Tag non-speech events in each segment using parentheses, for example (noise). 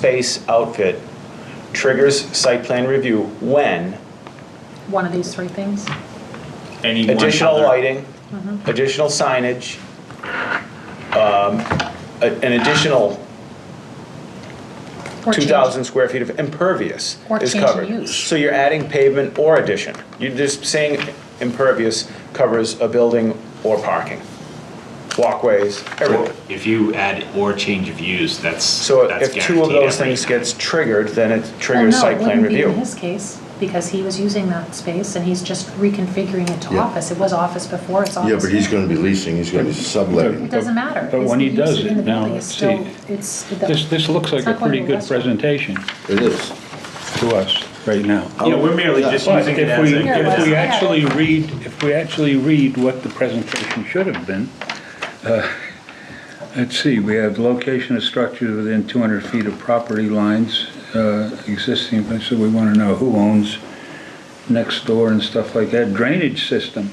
space outfit triggers site plan review when one of these three things? Any one additional other- lighting, Mm-hmm. additional signage, um, a- an additional Or change- 2,000 square feet of impervious Or is change in covered. use. So you're adding pavement or addition. You're just saying impervious covers a building or parking, walkways, everything. If you add or change of use, that's. So that's if two of guaranteed those every things time. gets triggered, then it Well, triggers Oh, no, site it plan wouldn't be in review. his case, because he was using that space and he's just reconfiguring it to Yeah. office. It was office before, it's Yeah, office but he's now. gonna be leasing, he's gonna be subletting. It doesn't matter. But His when he use does in the it, now, building is let's still- see. It's. This, this looks like it's a not going pretty to a good restaurant. presentation It is. to us right now. Yeah, we're merely just But using it if as we, a. Yeah, if we yeah. actually read, if we actually read what the presentation should have been, uh, let's see, we have location of structures within 200 feet of property lines uh, existing, so we want to know who owns next door and stuff like that. Drainage system,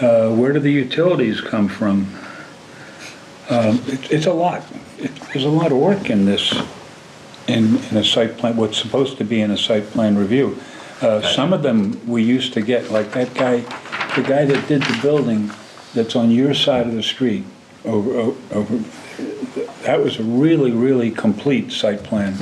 Uh, where do the utilities come from? Um, it- It's a lot, It- there's a lot of work in this in, in a site plan, what's supposed to be in a site plan review. Uh, some of them we used to get, like that guy, the guy that did the building that's on your side of the street over, o- over, that was a really, really complete site plan,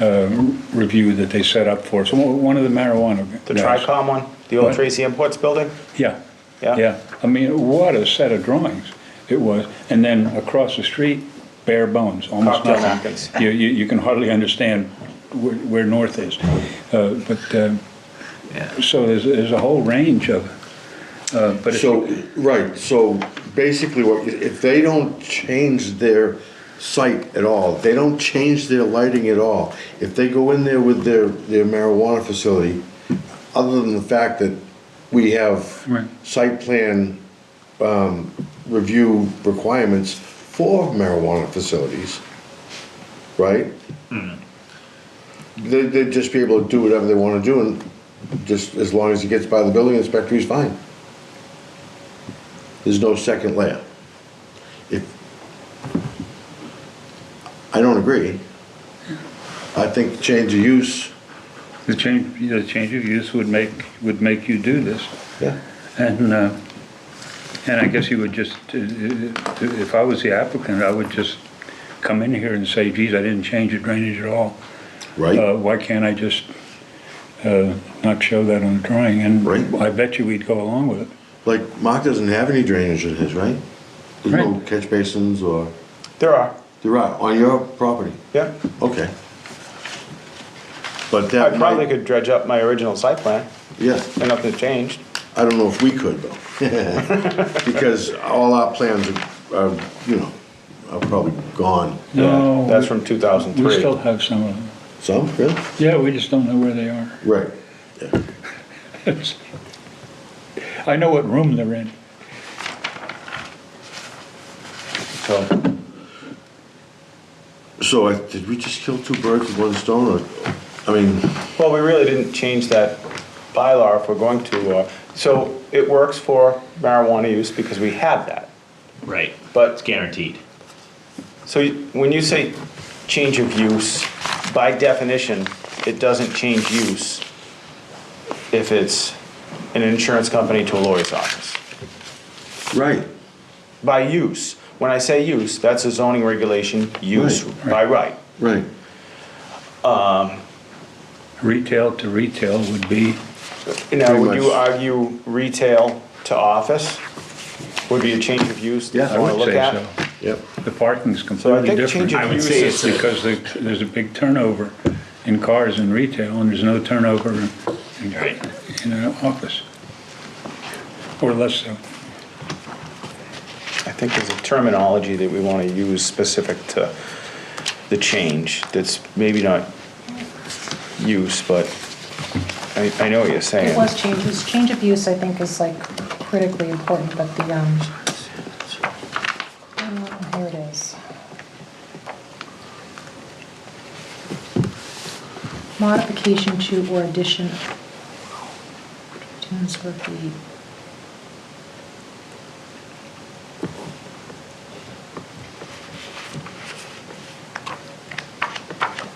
uh, review that they set up for us. One one of the marijuana guys. The Tricom one, the old What? Tracy Imports building? Yeah. Yeah? Yeah. I mean, what a set of drawings it was. And then across the street, bare bones, almost Cocktail nothing. napkins. You, you, you can hardly understand where, where north is. Uh, but, um, so there's, there's a whole range of, uh, but if So, you- right, so basically what, if they don't change their site at all, they don't change their lighting at all, if they go in there with their, their marijuana facility, other than the fact that we have Right. site plan, um, review requirements for marijuana facilities, right? They, they'd just be able to do whatever they wanna do and just as long as it gets by the building inspector, he's fine. There's no second layer. If, I don't agree. I think the change of use, the change, the change of use would make, would make you do this. yeah, And, uh, and I guess you would just, uh, if I was the applicant, I would just come in here and say, geez, I didn't change the drainage at all. right? Uh, Why can't I just uh, not show that on the drawing? And Right. I bet you we'd go along with it. Like, Mark doesn't have any drainage in his, right? There's no Right. catch basins or, There are, there are, on your property, yeah. okay. But I that probably might, could dredge up my original site plan, yeah, and nothing changed. I don't know if we could though. (laughs) Because all our plans are, are, you know, are probably gone. No, Yeah, That's we- from We 2003. still have some of them. Some, really? Yeah, we just don't know where they are. (laughs) Right, I know what room they're in. So So, I- did we just kill two birds with one stone, or, I mean, Well, we really didn't change that bylaw if we're going to, uh, so it works for marijuana use because we have that. Right, it's But, guaranteed. so you- when you say change of use, by definition, it doesn't change use if it's an insurance company to a lawyer's office. right, By use, when I say use, that's a zoning regulation, use Right, by right. right. Retail to retail would be, Now, Pretty would you much. argue retail to office would be a change of use Yeah, that I you I wanna would look say at? so. Yep. The parking's So I completely think change different. of I would use say is, it's a- Because there- there's a big turnover in cars in retail, and there's no turnover in, in- Right. in an office. Or less so. I think there's a terminology that we want to use specific to the change that's maybe not use, but I, I know what you're It saying. was changes, change of use, I think, is like critically important, but the, um, oh, here it is. Modification to or addition. Two square feet.